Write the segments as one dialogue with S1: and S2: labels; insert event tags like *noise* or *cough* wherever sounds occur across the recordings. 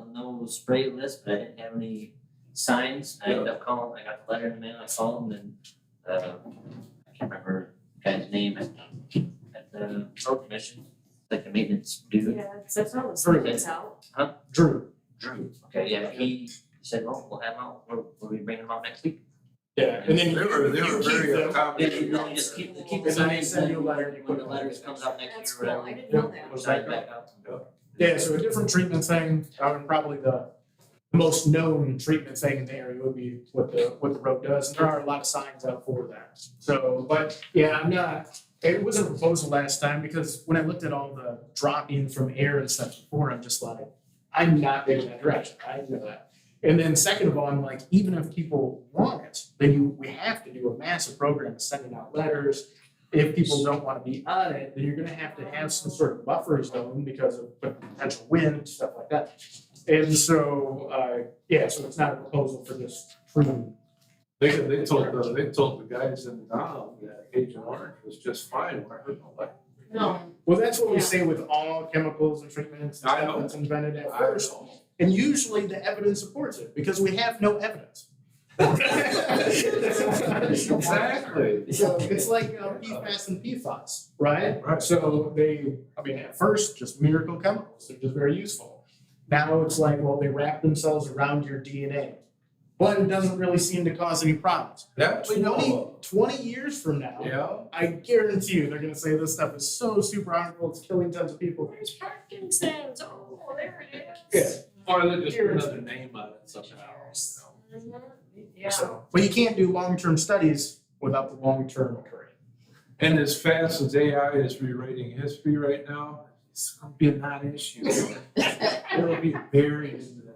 S1: local spray list, but I didn't have any signs. I ended up calling, I got the letter in the mail, I called them and, uh, I can't remember the guy's name at, at the road commission, like the maintenance dude,
S2: Yeah, so it's almost
S1: For a
S2: like it's out.
S3: Drew.
S1: Drew. Okay, yeah, he said, "Oh, well, we'll have him out, we'll, we'll be bringing him out next week.
S3: Yeah, and then
S4: They were, they
S3: you
S4: were
S3: keep
S4: very
S3: them.
S4: accommodating.
S1: No, just keep, the- keep the
S3: And then they
S1: signs,
S3: send you a
S1: then
S3: letter, you
S1: when
S3: put
S1: the
S3: it in
S1: letters
S3: the
S1: comes out next
S2: That's
S1: year,
S2: cool,
S1: whatever.
S2: I didn't know that.
S1: We'll sign it back up.
S3: Yeah, so a different treatment thing, I would probably the the most known treatment thing in the area would be what the, what the road does, and there are a lot of signs out for that. So, but, yeah, I'm not, it was a proposal last time, because when I looked at all the drop-in from air and stuff before, I'm just like, I'm not going that direction, I know that. And then second of all, I'm like, even if people want it, then you, we have to do a massive program, of sending out letters, if people don't wanna be on it, then you're gonna have to have some sort of buffer zone because of potential wind, stuff like that. And so, uh, yeah, so it's not a proposal for this true.
S4: They, they told, the- they told the guys in Donald that Agent Orange was just fine, when I heard all that.
S2: No,
S3: Well, that's what we
S2: Yeah.
S3: say with all chemicals and treatments and
S4: I
S3: stuff
S4: know.
S3: that's invented at
S4: I don't
S3: first.
S4: know.
S3: And usually the evidence supports it, because we have no evidence. *laughs*
S4: Exactly.
S3: So it's like uh, PFAS and PFAS, right?
S4: Right.
S3: So they, I mean, at first, just miracle chemicals, they're just very useful. Now it's like, well, they wrap themselves around your DNA. But it doesn't really seem to cause any problems.
S4: That we know
S3: Twenty,
S4: of.
S3: twenty years from now,
S4: Yeah.
S3: I guarantee you, they're gonna say this stuff is so super harmful, it's killing tons of people.
S2: there's Parkinson's, oh, there it
S3: Yeah.
S2: is.
S4: Or they just put another name on it somehow, you know.
S2: Mhm, Yeah.
S3: So- But you can't do long-term studies without the long-term occurring.
S4: And as fast as AI is rewriting history right now, it's gonna be a non-issue. It'll be buried in the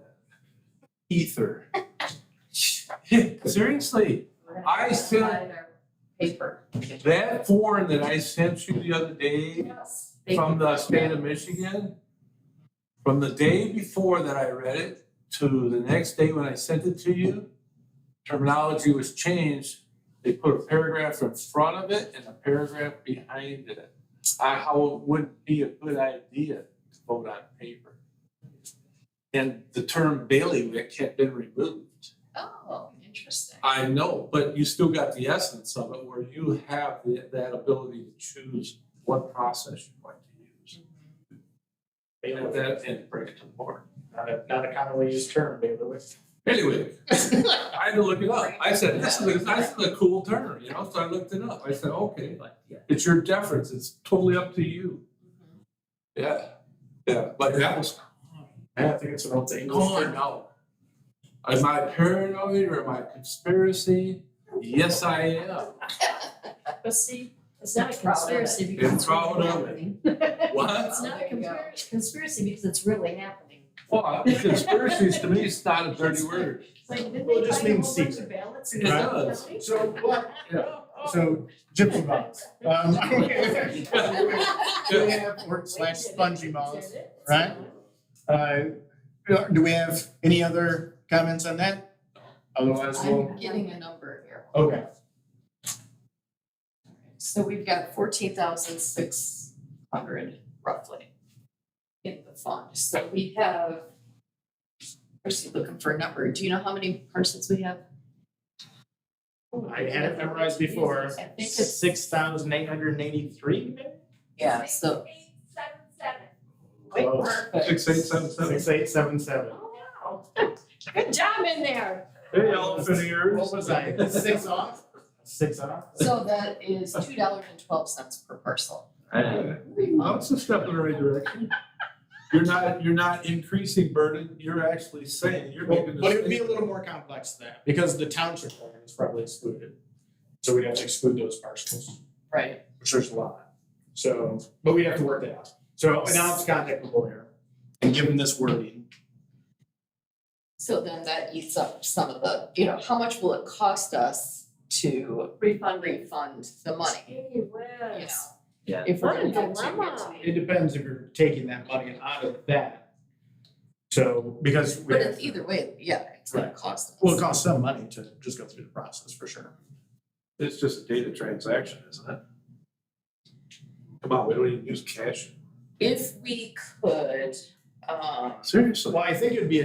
S4: ether. *laughs* Seriously, I still-
S2: Paper.
S4: that form that I sent you the other day
S2: Yes.
S4: from the state of Michigan, from the day before that I read it to the next day when I sent it to you, terminology was changed. They put a paragraph in front of it and a paragraph behind it. I, how it would be a good idea to vote on paper. And the term bailiwick had been removed.
S2: Oh, interesting.
S4: I know, but you still got the essence of it where you have the, that ability to choose what process you want to use.
S3: They
S4: And
S3: don't-
S4: that, and bring it to the board.
S3: Not a, not a commonly used term, bailiwick.
S4: Anyway, I had to look it up. I said, this is, a- this is a cool term, you know, so I looked it up. I said, okay,
S1: But, yeah.
S4: it's your deference. It's totally up to you. Yeah, yeah, but that was
S3: I don't think it's an old English
S4: gone
S3: term.
S4: now. Am I paranoid or am I conspiracy? Yes, I am.
S2: But see, it's not a conspiracy
S4: it.
S2: because it's
S4: They're proud
S2: really
S4: of it.
S2: happening. *laughs*
S4: What?
S2: It's not a conspira- conspiracy because it's really happening.
S4: Well, conspiracies to me is not a dirty word.
S2: It's like, didn't
S3: Well, it
S2: they
S3: just
S2: find a
S3: means
S2: whole bunch of
S3: secret.
S2: ballots
S4: It
S2: in the
S4: does.
S2: county? *laughs*
S3: So, well,
S4: Yeah.
S3: so gypsy box. Um, *laughs* Do we have, or slash
S2: We did it.
S3: spongy
S2: We
S3: balls?
S2: did it.
S3: right? Uh, do we have any other comments on that? Otherwise, we'll,
S5: I'm getting a number here.
S3: okay,
S5: So we've got fourteen thousand six hundred roughly in the fund. So we have, first you're looking for a number. Do you know how many parcels we have?
S3: Oh, I had it memorized before.
S5: I think it's,
S3: Six thousand eight hundred and eighty-three,
S5: yeah, so.
S2: Eight, seven, seven.
S3: Close.
S5: perfect.
S4: Six, eight, seven, seven.
S3: Six eight seven seven.
S2: Oh, wow. Good job in there.
S3: Hey, elephant
S4: ears.
S3: What was I, six off? Six off?
S5: So that is two dollars and twelve cents per parcel.
S1: I know.
S4: That's a step in the right direction. You're not, you're not increasing burden, you're actually saying, you're
S3: Well,
S4: making a
S3: But it would be a
S4: statement.
S3: little more complex than that, because the township program is probably excluded. So we'd have to exclude those parcels.
S5: Right.
S3: which there's a lot. So, but we have to work that out. So now it's contact the lawyer and give him this wording.
S5: So then that eats up some of the, you know, how much will it cost us to
S2: Refund,
S5: refund the money,
S2: Gee
S5: you know?
S2: whiz.
S1: Yeah.
S5: If we're
S2: What a
S5: gonna continue
S2: dilemma.
S5: to-
S3: It depends if you're taking that money out of that. So, because we
S5: But
S3: have,
S5: it's either way, yeah, it's gonna cost us.
S3: well, it costs some money to just go through the process for sure.
S4: It's just a data transaction, isn't it? Come on, we don't even use cash.
S5: If we could, um.
S4: Seriously.
S3: Well, I think it'd be a